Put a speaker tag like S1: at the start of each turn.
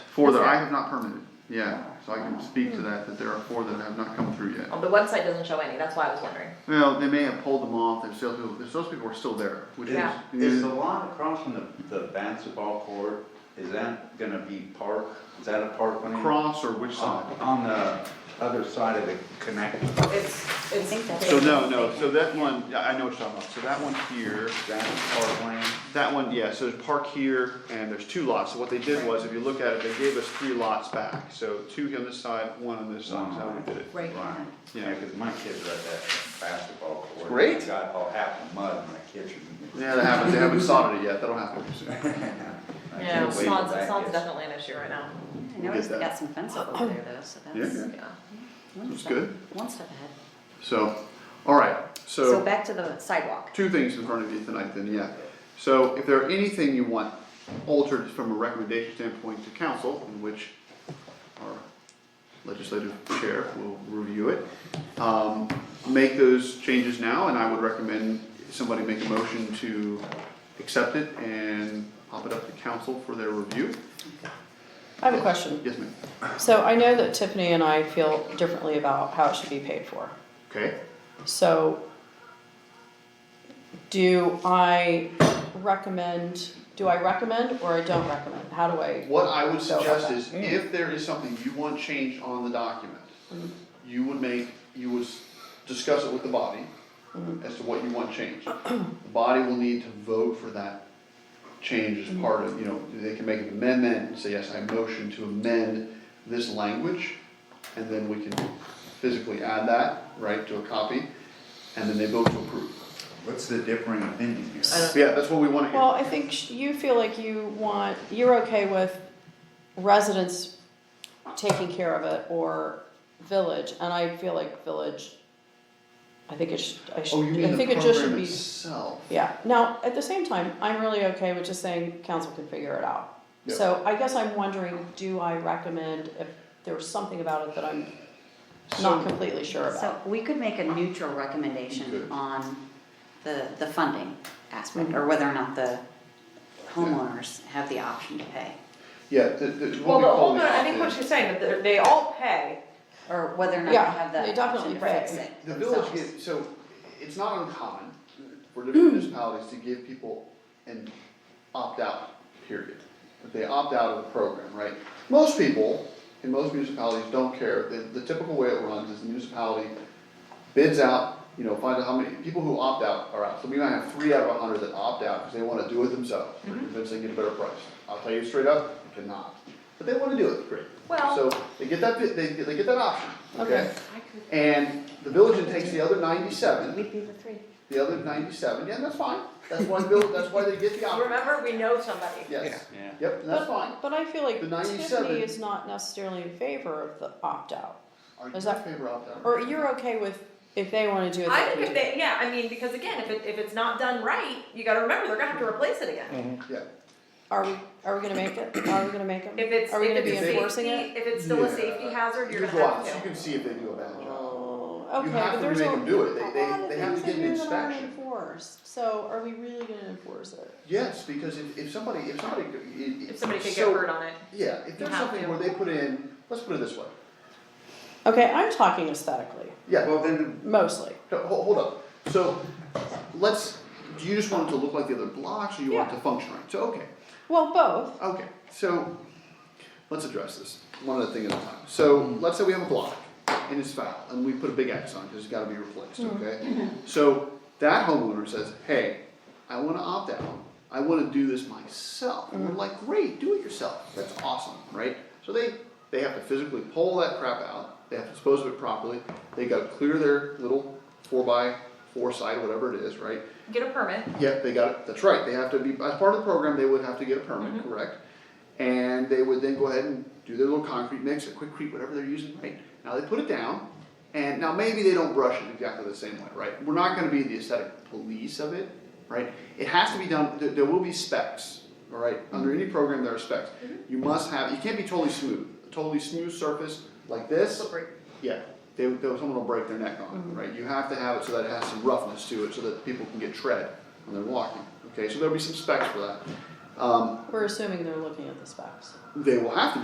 S1: Four that
S2: Is
S1: I
S2: there?
S1: have not permitted, yeah, so I can speak to that, that there are four that have not come through yet.
S2: Oh, the website doesn't show any, that's why I was wondering.
S1: Well, they may have pulled them off, their salespeople, their salespeople are still there, which is.
S2: Yeah.
S3: Is the lot across from the, the basketball court, is that gonna be park, is that a park lane?
S1: Across or which
S3: On,
S1: side?
S3: on the other side of the connect,
S2: It's, it's.
S1: So no, no, so that one, yeah, I know what you're talking about, so that one here,
S3: that's park lane?
S1: that one, yeah, so there's park here, and there's two lots, so what they did was, if you look at it, they gave us three lots back, so two on this side, one on this side, so how we did it.
S2: Right.
S3: Right.
S1: Yeah.
S3: Yeah, cause my kids are at that basketball court.
S1: Great.
S3: Got all half the mud in my kitchen.
S1: Yeah, they haven't, they haven't sodded it yet, that'll happen soon.
S3: I can't
S2: Yeah,
S3: wait till
S2: Snod's,
S3: that
S2: Snod's
S3: gets-
S2: definitely an issue right now.
S4: I noticed
S1: Did
S4: they
S1: that.
S4: got some fence up over there though, so that's.
S1: Yeah.
S2: Yeah.
S4: one
S1: That's
S4: step-
S1: good.
S4: One step ahead.
S1: So, alright,
S4: So back to the sidewalk.
S1: two things in front of you tonight then, yeah. So if there are anything you want altered from a recommendation standpoint to council, in which our legislative chair will review it, um, make those changes now, and I would recommend somebody make a motion to accept it and pop it up to council for their review.
S5: I have a question.
S1: Yes, ma'am.
S5: So I know that Tiffany and I feel differently about how it should be paid for.
S1: Okay,
S5: So do I recommend, do I recommend or I don't recommend? How do I?
S1: what I would
S5: go about
S1: suggest
S5: that?
S1: is if there is something you want changed on the document, you would make, you would s- discuss it with the body as to what you want changed. The body will need to vote for that change as part of, you know, they can make an amendment and say, yes, I motion to amend this language. And then we can physically add that, right, to a copy, and then they vote to approve.
S3: What's the differing opinion here?
S2: I don't-
S1: Yeah, that's what we wanna hear.
S5: Well, I think sh- you feel like you want, you're okay with residents taking care of it or village, and I feel like village, I think it should, I should,
S1: Oh, you mean
S5: I
S1: the
S5: think it just should
S1: program
S5: be.
S1: itself?
S5: Yeah, now, at the same time, I'm really okay with just saying council can figure it out.
S1: Yeah.
S5: So I guess I'm wondering, do I recommend if there was something about it that I'm
S1: So-
S5: not completely sure
S4: So
S5: about?
S4: we could make a neutral recommendation
S1: Good.
S4: on the, the funding
S1: Mm-hmm.
S4: aspect, or whether or not the homeowners have the option to pay.
S1: Yeah, the, the, what
S2: Well,
S1: we
S2: the
S1: call the.
S2: homeowner, I think what she's saying, that they're- they all pay,
S4: Or whether or not they
S5: Yeah,
S4: have
S5: they
S4: the option
S5: definitely
S4: to fix
S5: pay.
S4: it
S1: The village
S4: themselves.
S1: gives, so it's not uncommon for different municipalities to give people an opt-out period. That they opt out of the program, right? Most people in most municipalities don't care. The, the typical way it runs is the municipality bids out, you know, find out how many, people who opt out are out. So we might have three out of a hundred that opt out because they wanna do it themselves. They're convinced they can get a better price. I'll tell you straight up, you cannot. But they wanna do it, great.
S2: Well-
S1: So they get that, bid- they, they get that option, okay?
S5: Okay.
S1: And the village then takes the other ninety-seven,
S4: We'd be the three.
S1: the other ninety-seven, yeah, that's fine, that's why the bill, that's why they get the option,
S2: remember, we know somebody.
S1: yes,
S3: Yeah.
S1: yep, and that's fine.
S5: But I feel like
S1: The 97
S5: Tiffany is not necessarily in favor of the opt-out,
S1: Are you
S5: Is
S1: in
S5: that-
S1: favor of that?
S5: or you're okay with if they wanna do it.
S2: I
S5: they
S2: think if
S5: can do it.
S2: they, yeah, I mean, because again, if it, if it's not done right, you gotta remember, they're gonna have to replace it again.
S1: Yeah,
S5: Are we, are we gonna make it? Are we gonna make it?
S2: If it's,
S5: Are we
S2: if
S5: gonna be
S2: it's
S5: enforcing
S2: safety, if
S5: it?
S2: it's still a
S1: Yeah.
S2: safety hazard, you're
S1: there's
S2: gonna have
S1: lots,
S2: to.
S1: you can see if they do a bad job,
S5: Oh,
S1: You
S5: okay,
S1: have
S5: but
S1: to
S5: there's
S1: make
S5: a-
S1: 'em do it. They-
S5: a
S1: they-
S5: lot of
S1: they have to
S5: things in
S1: get an
S5: here that aren't
S1: inspection.
S5: enforced. So are we really gonna enforce it?
S1: yes, because if, if somebody, if somebody, it,
S2: If somebody could get
S1: so-
S2: hurt on it.
S1: Yeah, if there's
S2: have
S1: something
S2: to.
S1: where they put in, let's put it this way,
S5: Okay, I'm talking aesthetically,
S1: yeah,
S3: Well, then,
S5: mostly.
S1: no, hold, hold up, so, let's, do you just want it to look like the other blocks, or you want it
S5: Yeah.
S1: to function right, so, okay.
S5: Well, both.
S1: Okay, so let's address this one other thing at a time. So let's say we have a block and it's foul and we put a big X on it because it's got to be replaced, okay? So that homeowner says, hey, I want to opt out. I want to do this myself. And we're like, great, do it yourself. That's awesome, right? So they, they have to physically pull that crap out. They have to dispose of it properly. They got to clear their little four by four side, whatever it is, right?
S2: Get a permit.
S1: Yep, they got it, that's right, they have to be, as part of the program, they would have to get a permit, correct? And they would then go ahead and do their little concrete mix, or quickcrete, whatever they're using, right? Now they put it down, and now maybe they don't brush it exactly the same way, right? We're not gonna be the aesthetic police of it, right? It has to be done, there, there will be specs, all right? Under any program, there are specs. You must have, you can't be totally smooth, a totally smooth surface like this.
S2: Slippery.
S1: Yeah, they, they, someone will break their neck on it, right? You have to have it so that it has some roughness to it, so that people can get tread when they're walking. Okay, so there'll be some specs for that. Um,
S5: We're assuming they're looking at the specs.
S1: they will have to be